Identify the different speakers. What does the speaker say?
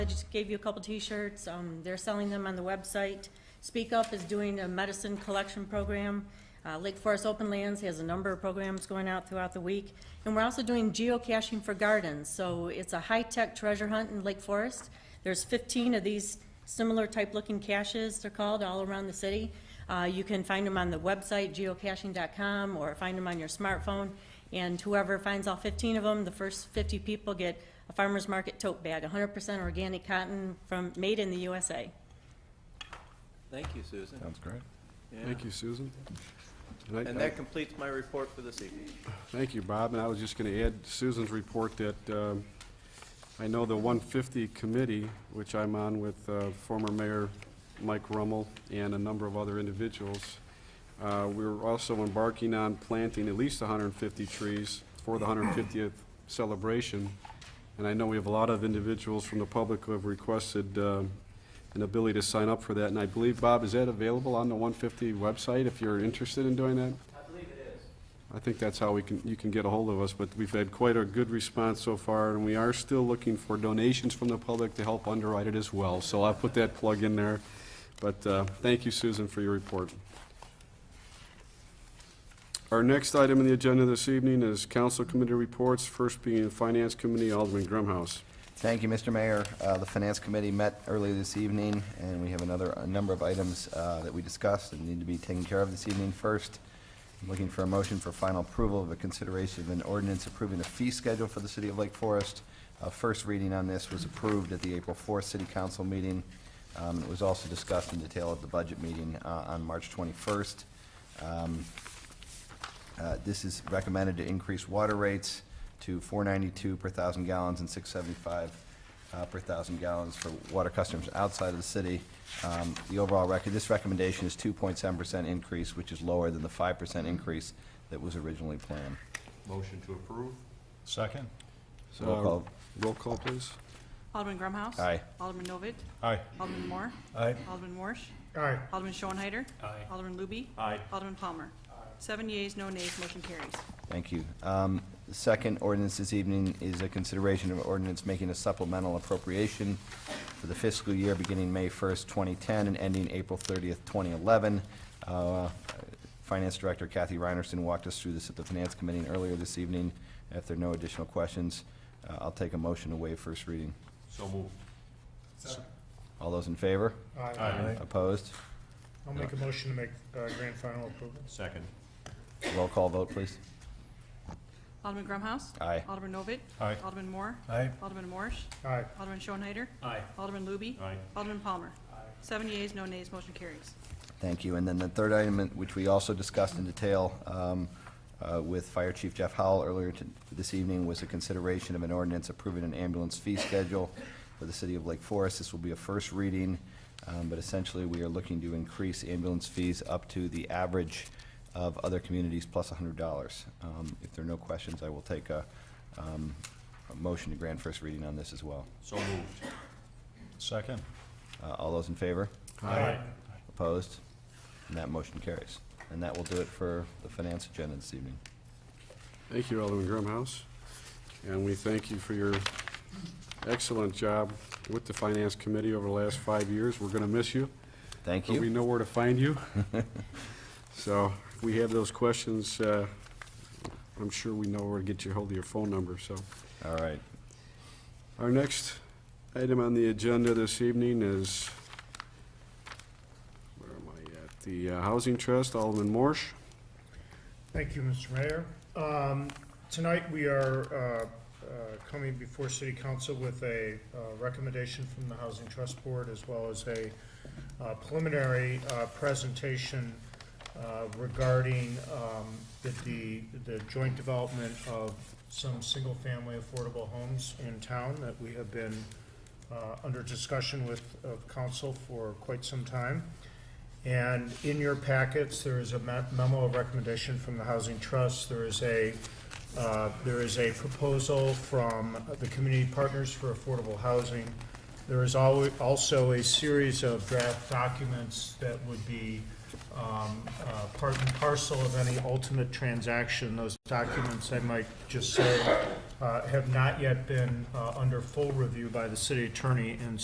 Speaker 1: I just gave you a couple T-shirts. Um, they're selling them on the website. Speak Up is doing a medicine collection program. Uh, Lake Forest Open Lands has a number of programs going out throughout the week. And we're also doing geocaching for gardens. So it's a high-tech treasure hunt in Lake Forest. There's fifteen of these similar type-looking caches, they're called, all around the city. Uh, you can find them on the website, geocaching.com, or find them on your smartphone. And whoever finds all fifteen of them, the first fifty people get a farmer's market tote bag, hundred percent organic cotton from, made in the USA.
Speaker 2: Thank you, Susan.
Speaker 3: Sounds great.
Speaker 2: Yeah.
Speaker 4: Thank you, Susan. And I-
Speaker 2: And that completes my report for this evening.
Speaker 4: Thank you, Bob, and I was just going to add to Susan's report that um, I know the 150 committee, which I'm on with uh, former Mayor Mike Rummel and a number of other individuals, uh, we're also embarking on planting at least 150 trees for the 150th celebration. And I know we have a lot of individuals from the public who have requested um, an ability to sign up for that. And I believe, Bob, is that available on the 150 website if you're interested in doing that? I think that's how we can, you can get a hold of us, but we've had quite a good response so far, and we are still looking for donations from the public to help underwrite it as well, so I'll put that plug in there. But, uh, thank you, Susan, for your report. Our next item on the agenda this evening is council committee reports, first being Finance Committee, Alderman Grumhouse.
Speaker 5: Thank you, Mr. Mayor. Uh, The Finance Committee met earlier this evening, and we have another, a number of items uh, that we discussed and need to be taken care of this evening. First, I'm looking for a motion for final approval of a consideration of an ordinance approving a fee schedule for the City of Lake Forest. Uh, First reading on this was approved at the April 4th City Council meeting. Um, It was also discussed in detail at the budget meeting uh, on March 21st. Um, uh, This is recommended to increase water rates to four ninety-two per thousand gallons and six seventy-five uh, per thousand gallons for water customers outside of the city. Um, The overall record, this recommendation is two point seven percent increase, which is lower than the five percent increase that was originally planned.
Speaker 6: Motion to approve?
Speaker 3: Second?
Speaker 5: Roll call.
Speaker 4: Uh, Roll call, please.
Speaker 7: Alderman Grumhouse.
Speaker 5: Aye.
Speaker 7: Alderman Novit.
Speaker 3: Aye.
Speaker 7: Alderman Moore.
Speaker 3: Aye.
Speaker 7: Alderman Warsh. Aye. Alderman Schoenhyder.
Speaker 6: Aye.
Speaker 7: Alderman Luby.
Speaker 6: Aye.
Speaker 7: Alderman Palmer. Seven yeas, no nays, motion carries.
Speaker 5: Thank you. Um, The second ordinance this evening is a consideration of an ordinance making a supplemental appropriation for the fiscal year beginning May 1st, 2010, and ending April 30th, 2011. Uh, Finance Director Kathy Reinerson walked us through this at the Finance Committee earlier this evening. If there are no additional questions, uh, I'll take a motion to waive first reading.
Speaker 6: So moved.
Speaker 5: All those in favor?
Speaker 6: Aye.
Speaker 5: Opposed?
Speaker 8: I'll make a motion to make uh, grand final approval.
Speaker 6: Second.
Speaker 5: Roll call vote, please.
Speaker 7: Alderman Grumhouse.
Speaker 5: Aye.
Speaker 7: Alderman Novit.
Speaker 3: Aye.
Speaker 7: Alderman Moore.
Speaker 3: Aye.
Speaker 7: Alderman Warsh.
Speaker 8: Aye.
Speaker 7: Alderman Schoenhyder.
Speaker 6: Aye.
Speaker 7: Alderman Luby.
Speaker 6: Aye.
Speaker 7: Alderman Palmer. Seven yeas, no nays, motion carries.
Speaker 5: Thank you. And then the third item, which we also discussed in detail um, uh, with Fire Chief Jeff Howell earlier to- this evening, was a consideration of an ordinance approving an ambulance fee schedule for the city of Lake Forest. This will be a first reading, um, but essentially, we are looking to increase ambulance fees up to the average of other communities plus $100. Um, If there are no questions, I will take a um, a motion to grant first reading on this as well.
Speaker 6: So moved.
Speaker 3: Second?
Speaker 5: Uh, All those in favor?
Speaker 6: Aye.
Speaker 5: Opposed? And that motion carries. And that will do it for the finance agenda this evening.
Speaker 4: Thank you, Alderman Grumhouse, and we thank you for your excellent job with the Finance Committee over the last five years. We're going to miss you,
Speaker 5: Thank
Speaker 4: but we
Speaker 5: you.
Speaker 4: know where to find you. So if we have those questions, uh, I'm sure we know where to get you hold of your phone number, so.
Speaker 5: All right.
Speaker 4: Our next item on the agenda this evening is, where am I at? The uh, Housing Trust, Alderman Morse.
Speaker 8: Thank you, Mr. Mayor. Um, Tonight, we are uh, uh, coming before City Council with a uh, recommendation from the Housing Trust Board, as well as a uh, preliminary uh, presentation uh, regarding um, the- the, the joint development of some single-family affordable homes in town that we have been uh, under discussion with, of council for quite some time. And in your packets, there is a me- memo of recommendation from the Housing Trust. There is a, uh, there is a proposal from the Community Partners for Affordable Housing. There is alwa- also a series of draft documents that would be um, uh, part and parcel of any ultimate transaction. Those documents, I might just say, uh, have not yet been uh, under full review by the city attorney, and